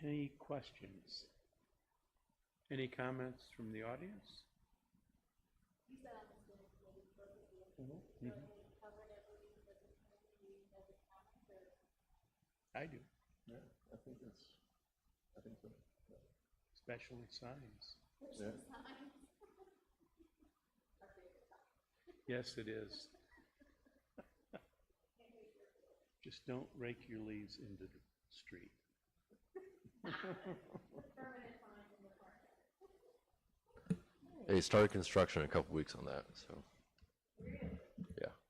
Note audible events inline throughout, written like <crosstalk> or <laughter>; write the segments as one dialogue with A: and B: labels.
A: Any questions? Any comments from the audience?
B: Mm-hmm.
A: Mhm. I do,
C: Yeah, I think it's, I think so.
A: especially signs.
C: Yeah.
A: Yes, it is. <laughs> Just don't rake your leaves into the street.
D: They started construction in a couple weeks on that, so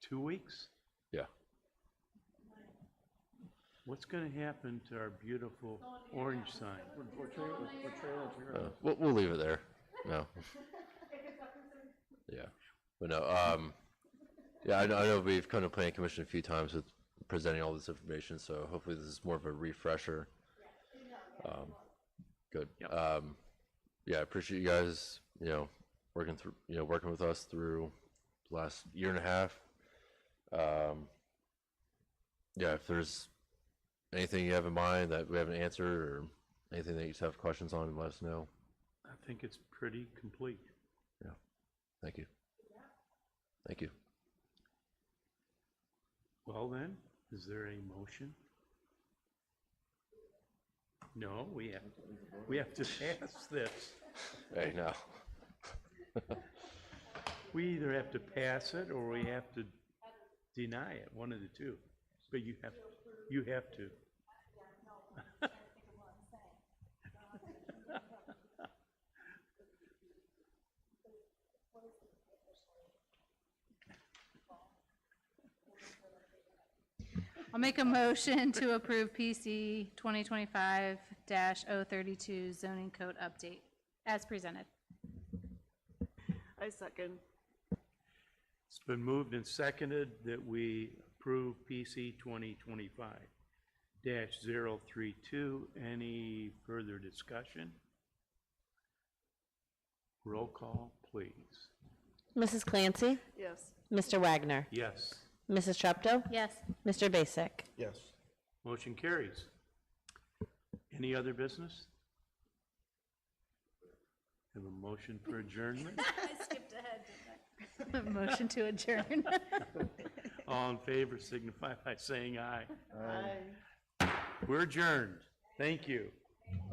A: Two weeks?
D: yeah.
A: What's going to happen to our beautiful orange sign?
C: We're, we're trailing, we're trailing,
D: Uh, we'll, we'll leave it there. No. yeah, but no. Um, yeah, I know, I know we've come to planning commission a few times with presenting all this information, so hopefully this is more of a refresher. Um, good.
A: Yep.
D: Um, yeah, I appreciate you guys. You know, working through, you know, working with us through the last year and a half. Um, yeah, if there's anything you have in mind that we haven't answered or anything that you just have questions on, let us know.
A: I think it's pretty complete.
D: Thank you. Thank you.
A: Well then, is there a motion? No, we have, we have to <laughs> pass this.
D: Hey, now,
A: We either have to pass it or we have to deny it, one of the two. But you have, you have to.
B: I'll make a motion to approve PC 2025-032 zoning code update as presented.
E: I second.
A: It's been moved and seconded that we approve PC twenty twenty-five dash zero three two. Any further discussion? Roll call, please.
F: Mrs. Clancy,
E: Yes.
F: Mr. Wagner,
A: Yes,
F: Mrs. Trepto,
B: Yes.
F: Mr. Basic.
C: Yes.
A: motion carries. Any other business? Have a motion for adjournment?
B: <laughs> Motion to adjourn.
A: <laughs> All in favor signify by saying aye.
E: Aye.
A: We're adjourned. Thank you.